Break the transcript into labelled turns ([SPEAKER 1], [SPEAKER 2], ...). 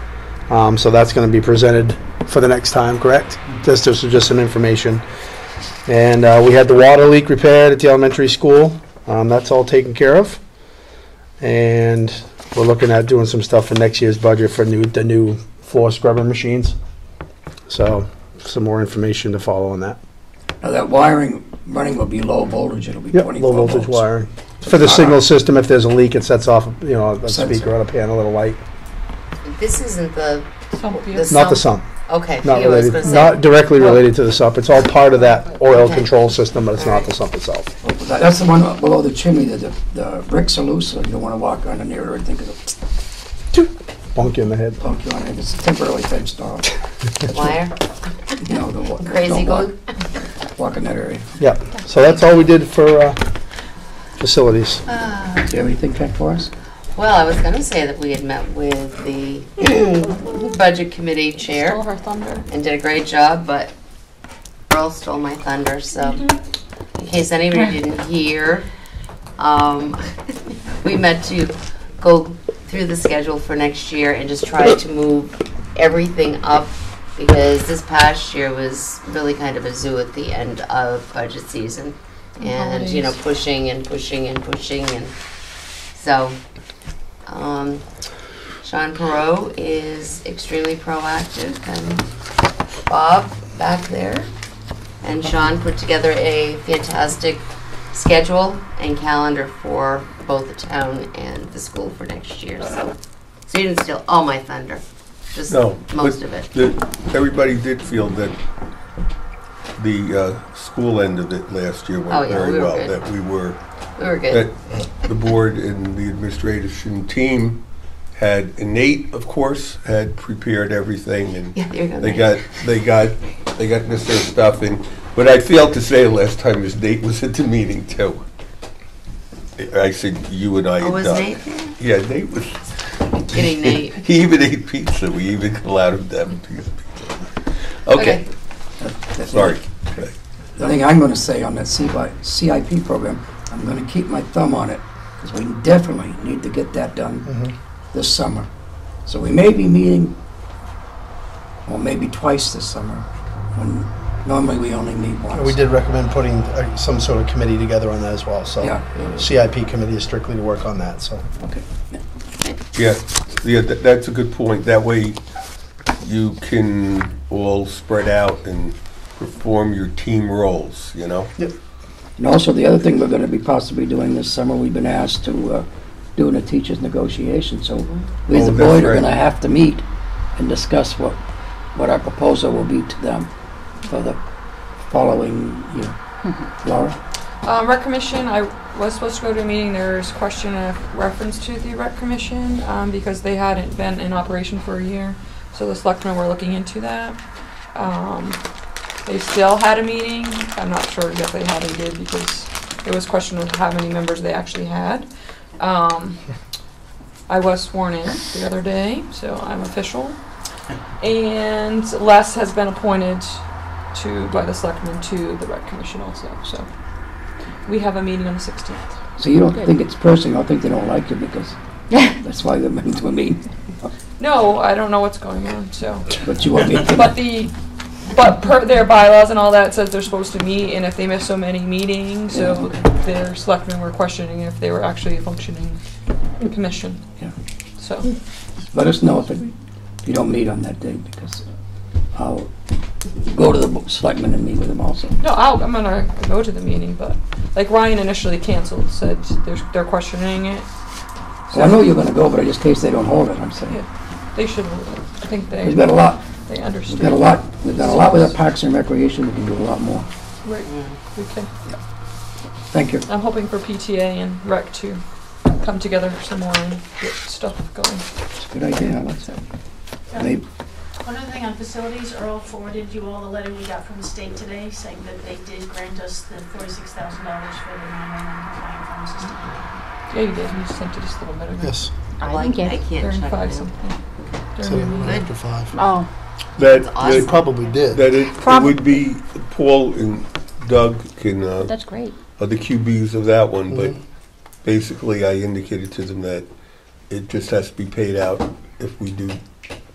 [SPEAKER 1] Um, so that's going to be presented for the next time, correct? This, this is just some information. And uh, we had the water leak repaired at the elementary school. Um, that's all taken care of. And we're looking at doing some stuff for next year's budget for new, the new floor scrubber machines. So some more information to follow on that.
[SPEAKER 2] Now, that wiring running will be low voltage, it'll be
[SPEAKER 1] Yep,
[SPEAKER 2] 24 volts.
[SPEAKER 1] low voltage wiring. For
[SPEAKER 2] Uh,
[SPEAKER 1] the signal system, if there's a leak, it sets off, you know, a speaker on a panel, it'll light.
[SPEAKER 3] This isn't the,
[SPEAKER 4] Something.
[SPEAKER 1] Not the sump,
[SPEAKER 3] okay,
[SPEAKER 1] not
[SPEAKER 3] yeah, I was gonna
[SPEAKER 1] related,
[SPEAKER 3] say.
[SPEAKER 1] not directly related to the sump. It's all part of that oil
[SPEAKER 3] Okay.
[SPEAKER 1] control system, but it's not the
[SPEAKER 3] Alright.
[SPEAKER 1] sump itself.
[SPEAKER 2] That- Uh, That's the one below the chimney, that the, the bricks are loose, so you don't want to walk on the near and think it'll
[SPEAKER 1] Bonk you in the head.
[SPEAKER 2] plunk you on it. It's a temporary type storm.
[SPEAKER 3] Wire,
[SPEAKER 2] You know, don't walk- don't
[SPEAKER 3] crazy
[SPEAKER 2] walk-
[SPEAKER 3] going.
[SPEAKER 2] Walk in that area.
[SPEAKER 1] Yeah, so that's all we did for uh, facilities.
[SPEAKER 2] Do you have anything, Pat, for us?
[SPEAKER 3] Well, I was gonna say that we had met with the budget committee
[SPEAKER 4] Stole
[SPEAKER 3] chair
[SPEAKER 4] her thunder.
[SPEAKER 3] and did a great job, but Earl stole my thunder, so in case anybody didn't hear, um, we met to go through the schedule for next year and just try to move everything up because this past year was really kind of a zoo at the end of budget season. And, you know,
[SPEAKER 4] Holidays.
[SPEAKER 3] pushing and pushing and pushing and so um, Sean Perot is extremely proactive and Bob back there. And Sean put together a fantastic schedule and calendar for both the town and the school for next year. So, so you didn't steal all my thunder, just
[SPEAKER 5] No,
[SPEAKER 3] most
[SPEAKER 5] but
[SPEAKER 3] of it.
[SPEAKER 5] the- Everybody did feel that the uh, school end of it last year
[SPEAKER 3] Oh, yeah,
[SPEAKER 5] went very
[SPEAKER 3] we were
[SPEAKER 5] well.
[SPEAKER 3] good.
[SPEAKER 5] That we were,
[SPEAKER 3] We were good.
[SPEAKER 5] that the board and the administration team had, and Nate, of course, had prepared everything and
[SPEAKER 3] yeah, there you go.
[SPEAKER 5] They
[SPEAKER 3] Nate.
[SPEAKER 5] got, they got, they got Mr. Stuff and, what I failed to say last time is Nate was at the meeting too. I said, you and I.
[SPEAKER 3] Oh,
[SPEAKER 5] had
[SPEAKER 3] was
[SPEAKER 5] done."
[SPEAKER 3] Nate there?
[SPEAKER 5] Yeah, Nate was.
[SPEAKER 3] Getting Nate.
[SPEAKER 5] He even ate pizza, we even allowed him to have a piece of pizza. Okay, sorry.
[SPEAKER 2] The thing I'm going to say on that CY CIP program, I'm going to keep my thumb on it, because we definitely need to get that
[SPEAKER 1] Mm-hmm.
[SPEAKER 2] done this summer. So we may be meeting, well, maybe twice this summer, when normally we only meet once.
[SPEAKER 1] We did recommend putting uh, some sort of committee together on that as well, so.
[SPEAKER 2] Yeah.
[SPEAKER 1] CIP committee is strictly to work on that, so.
[SPEAKER 5] Yeah, yeah, tha- that's a good point. That way you can all spread out and perform your team roles, you know?
[SPEAKER 2] And also, the other thing we're going to be possibly doing this summer, we've been asked to uh, do in a teachers' negotiation, so we as a
[SPEAKER 5] Oh, that's
[SPEAKER 2] board are
[SPEAKER 5] right.
[SPEAKER 2] going to have to meet and discuss what, what our proposal will be to them for the following year. Laura?
[SPEAKER 4] Um, rec commission, I was supposed to go to a meeting, there's question of reference to the rec commission, um, because they hadn't been in operation for a year. So the selectmen were looking into that. Um, they still had a meeting, I'm not sure exactly how they did, because it was question of how many members they actually had. Um, I was sworn in the other day, so I'm official. And Les has been appointed to, by the selectmen to the rec commission also, so. We have a meeting on the 16th.
[SPEAKER 2] So you don't
[SPEAKER 4] Good.
[SPEAKER 2] think it's personal, I think they don't like you because that's why they're meant to meet,
[SPEAKER 4] No, I don't know what's going on, so.
[SPEAKER 2] but you want me to...
[SPEAKER 4] But the, but per their bylaws and all that says they're supposed to meet, and if they miss so many meetings, so their selectmen were questioning if they were actually a functioning commission.
[SPEAKER 2] Yeah.
[SPEAKER 4] So,
[SPEAKER 2] let us know if it- if you don't meet on that day because I'll go to the bo- selectmen and meet with them also.
[SPEAKER 4] no, I'll, I'm gonna go to the meeting, but, like Ryan initially canceled, said they're, they're questioning it.
[SPEAKER 2] So I know you're going to go, but just in case they don't hold it, I'm saying.
[SPEAKER 4] Yeah. They should, I think they,
[SPEAKER 2] We've got a lot,
[SPEAKER 4] they
[SPEAKER 2] we've
[SPEAKER 4] understand.
[SPEAKER 2] got a lot, we've got a lot with our parks and recreation, we can do a lot more.
[SPEAKER 4] Right, okay.
[SPEAKER 2] Thank you.
[SPEAKER 4] I'm hoping for PTA and rec to come together some more and get stuff going.
[SPEAKER 2] It's a good idea, I like that. Maybe-
[SPEAKER 6] One other thing on facilities, Earl forwarded you all the letter we got from the state today saying that they did grant us the forty-six thousand dollars for the non-compliant phone system.
[SPEAKER 4] Yeah, you did. You sent it just a little bit ago.
[SPEAKER 1] Yes.
[SPEAKER 3] I,
[SPEAKER 7] I
[SPEAKER 3] like,
[SPEAKER 7] think
[SPEAKER 3] I
[SPEAKER 7] it-
[SPEAKER 3] can't
[SPEAKER 4] During
[SPEAKER 3] check
[SPEAKER 4] five
[SPEAKER 3] now.
[SPEAKER 4] something.
[SPEAKER 1] So,
[SPEAKER 4] During the meeting.
[SPEAKER 1] after five.
[SPEAKER 7] Oh,
[SPEAKER 5] That,
[SPEAKER 3] awesome.
[SPEAKER 5] that-
[SPEAKER 1] Probably did.
[SPEAKER 5] that it it
[SPEAKER 7] Probably.
[SPEAKER 5] would be, Paul and Doug can uh,
[SPEAKER 7] that's great.
[SPEAKER 5] are the QBs of that one, but
[SPEAKER 1] Mhm.
[SPEAKER 5] basically I indicated to them that it just has to be paid out if we do